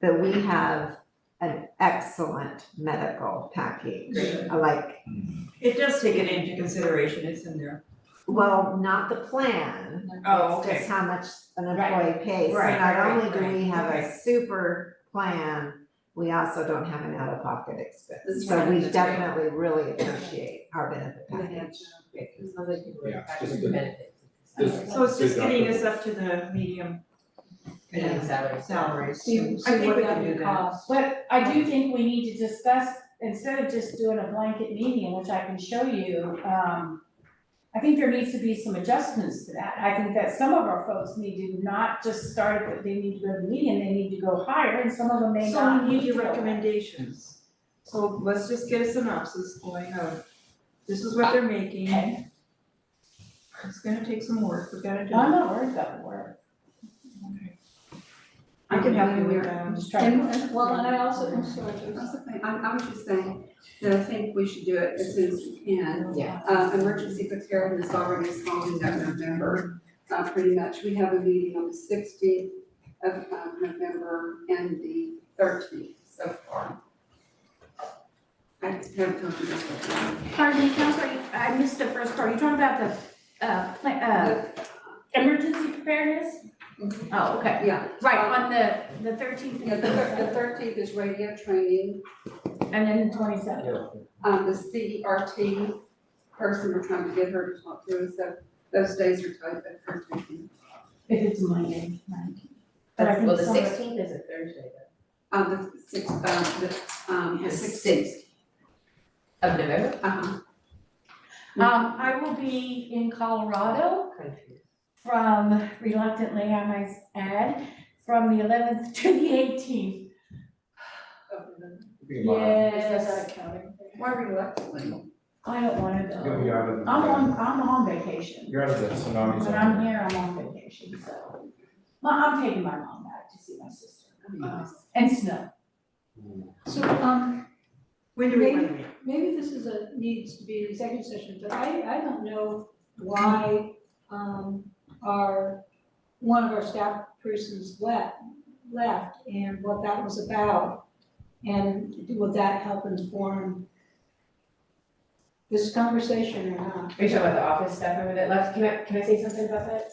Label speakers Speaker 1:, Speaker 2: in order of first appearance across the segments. Speaker 1: that we have an excellent medical package.
Speaker 2: Great.
Speaker 1: I Like,
Speaker 2: It does take it into consideration, it's in there.
Speaker 1: well, not the plan,
Speaker 2: Oh,
Speaker 1: it's just how much an employee pays. So
Speaker 2: Right,
Speaker 1: Not
Speaker 2: right,
Speaker 1: only do
Speaker 2: right,
Speaker 1: we have a
Speaker 2: right.
Speaker 1: super plan, we also don't have an out-of-pocket expense.
Speaker 3: That's
Speaker 1: So
Speaker 3: right,
Speaker 1: we
Speaker 3: that's right.
Speaker 1: definitely really appreciate our benefit package.
Speaker 3: It's not like people
Speaker 4: Yeah,
Speaker 3: are
Speaker 4: it's
Speaker 3: factoring
Speaker 4: just the-
Speaker 3: benefits.
Speaker 4: this-
Speaker 2: So it's just
Speaker 4: Good
Speaker 2: getting us
Speaker 4: document.
Speaker 2: up to the medium
Speaker 3: Minimum salary.
Speaker 2: salaries.
Speaker 5: See,
Speaker 2: I think we can do
Speaker 5: would
Speaker 2: that.
Speaker 5: Um, But I do think we need to discuss, instead of just doing a blanket median, which I can show you, um, I think there needs to be some adjustments to that. I think that some of our folks need to not just start, but they need to go to the median, they need to go higher, and some of them may
Speaker 2: So
Speaker 5: not.
Speaker 2: we need your
Speaker 5: to go.
Speaker 2: recommendations. So let's just get a synopsis going of, this is what they're making. It's gonna take some work, we gotta do
Speaker 5: I'm
Speaker 2: it.
Speaker 5: not worried about the word.
Speaker 2: I can help you with
Speaker 5: I'm
Speaker 2: that.
Speaker 5: just trying to.
Speaker 6: Well, and I also, I'm sorry, that's the thing, I'm, I was just saying that I think we should do it as soon as we can.
Speaker 3: Yeah.
Speaker 6: Uh, emergency preparedness already is falling that November, uh, pretty much, we have a meeting on the sixteenth of, uh November and the thirteenth so far. I haven't told you about that.
Speaker 7: Pardon me, Counselor, I missed the first part. You're talking about the, uh, pla- uh, emergency preparedness?
Speaker 5: Mm-hmm.
Speaker 6: Mhm.
Speaker 7: Oh, okay.
Speaker 6: Yeah, Uh,
Speaker 7: Right, on the, the thirteenth.
Speaker 6: yeah, the thir- the thirteenth is radio training,
Speaker 5: And then twenty-seven.
Speaker 6: um, the CRT person, we're trying to get her to talk to us, so those days are tight, but her taking.
Speaker 5: If it's Monday, right. But I think
Speaker 3: Well, the
Speaker 5: some of-
Speaker 3: sixteenth is a Thursday
Speaker 6: Um, the sixth, um, the, um,
Speaker 3: though.
Speaker 6: the sixth,
Speaker 3: Of November?
Speaker 6: uh-huh,
Speaker 5: Um, I will be in Colorado
Speaker 3: Country.
Speaker 5: from reluctantly, I might add, from the eleventh to the eighteenth.
Speaker 6: over the,
Speaker 5: Yes,
Speaker 6: counting? Why reluctantly?
Speaker 5: I don't wanna
Speaker 4: You'll be
Speaker 5: go.
Speaker 4: out of
Speaker 5: I'm
Speaker 4: the.
Speaker 5: on, I'm on vacation.
Speaker 4: You're out of the tsunami
Speaker 5: When I'm
Speaker 4: zone.
Speaker 5: here, I'm on vacation, so. Well, I'm taking my mom back to see my sister.
Speaker 6: I mean,
Speaker 5: Uh, And snow.
Speaker 8: So, um,
Speaker 2: When do we want to meet?
Speaker 8: maybe this is a, needs to be an executive session, but I, I don't know why, um, our, one of our staff persons left, left and what that was about. And would that help inform this conversation or not?
Speaker 3: Are you talking about the office staff member that left? Can I, can I say something about that?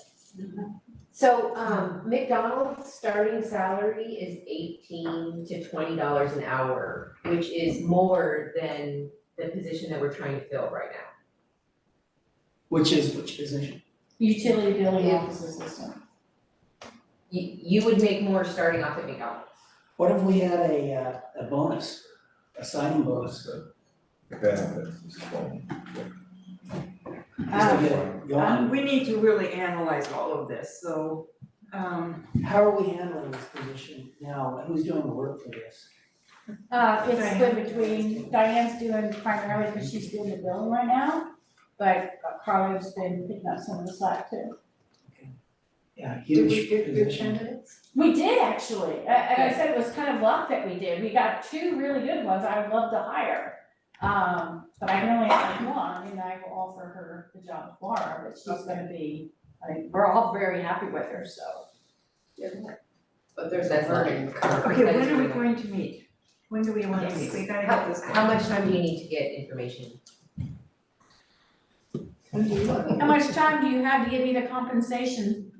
Speaker 3: So, um, McDonald's starting salary is eighteen to twenty dollars an hour, which is more than the position that we're trying to fill right now.
Speaker 9: Which is which position?
Speaker 5: Utility billing
Speaker 3: Yeah.
Speaker 5: offices this one.
Speaker 3: You, you would make more starting off at McDonald's.
Speaker 9: What if we had a, uh, a bonus, a signing bonus, just
Speaker 4: Benefits is fine.
Speaker 5: Uh,
Speaker 9: to get
Speaker 5: Ah.
Speaker 9: it going?
Speaker 2: Um, We need to really analyze all of this, so, um,
Speaker 9: How are we handling this position now? Who's doing the work for this?
Speaker 5: Uh, it's split between, Diane's doing primarily because she's doing the billing right now, but Carla's been picking up some of the slack too.
Speaker 9: Yeah,
Speaker 6: Did
Speaker 9: huge
Speaker 6: we get good
Speaker 9: position.
Speaker 6: candidates?
Speaker 5: We did actually, A- and I said it was kind of luck that we did, we got two really good ones I would love to hire. Um, but I can only have one, and I will offer her the job tomorrow, but she's gonna be, I mean, we're all very happy with her, so.
Speaker 3: But there's. That's not in the current.
Speaker 2: okay,
Speaker 3: that is
Speaker 2: when are we
Speaker 3: going on.
Speaker 2: going to meet? When do we want to meet? We gotta get
Speaker 3: How,
Speaker 2: this.
Speaker 3: how much time do you need to get information?
Speaker 5: How much time do you have to give me the compensation?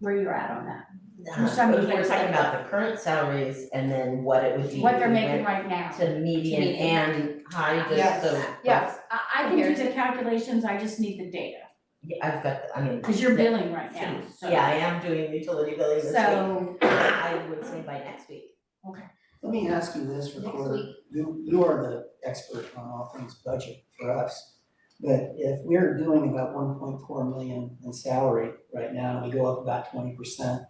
Speaker 5: Where you're at on that, How much time do you
Speaker 10: If we're
Speaker 5: think?
Speaker 10: talking about the current salaries and then what it would be.
Speaker 5: what they're
Speaker 10: if we
Speaker 5: making
Speaker 10: went
Speaker 5: right now.
Speaker 10: To median
Speaker 5: median.
Speaker 10: and high,
Speaker 5: Yes.
Speaker 10: just so.
Speaker 5: Yes, I, I can do the calculations, I just need the data,
Speaker 10: Yeah, I've got, the- I mean.
Speaker 5: cause you're
Speaker 10: the-
Speaker 5: billing right now, so.
Speaker 10: Yeah, I am doing utility billing this week.
Speaker 5: So,
Speaker 10: I would say by next week.
Speaker 9: Let me ask you this,
Speaker 10: Next
Speaker 9: recorder. You, you are the expert on all things budget for us. But if we're doing about one point four million in salary right now, we go up about twenty percent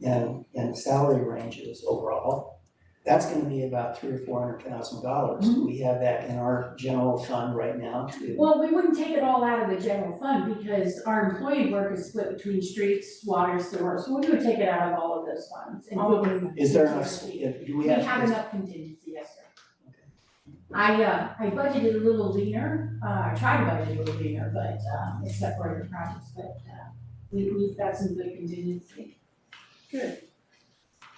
Speaker 9: in, in the salary ranges overall, that's gonna be about three or four hundred thousand dollars. We have that in our general fund right now to
Speaker 5: Mm-hmm. well, we wouldn't take it all out of the general fund because our employee work is split between streets, water, sewer, so we would take it out of all of those funds and we would-
Speaker 9: Is there enough, do we
Speaker 5: We
Speaker 9: have?
Speaker 5: have enough contingency, yes, sir. I, uh, I budgeted a little leaner, uh, I tried to budget a little leaner, but, um, except for the projects, but, uh, we, we've got some good contingency.
Speaker 6: Good.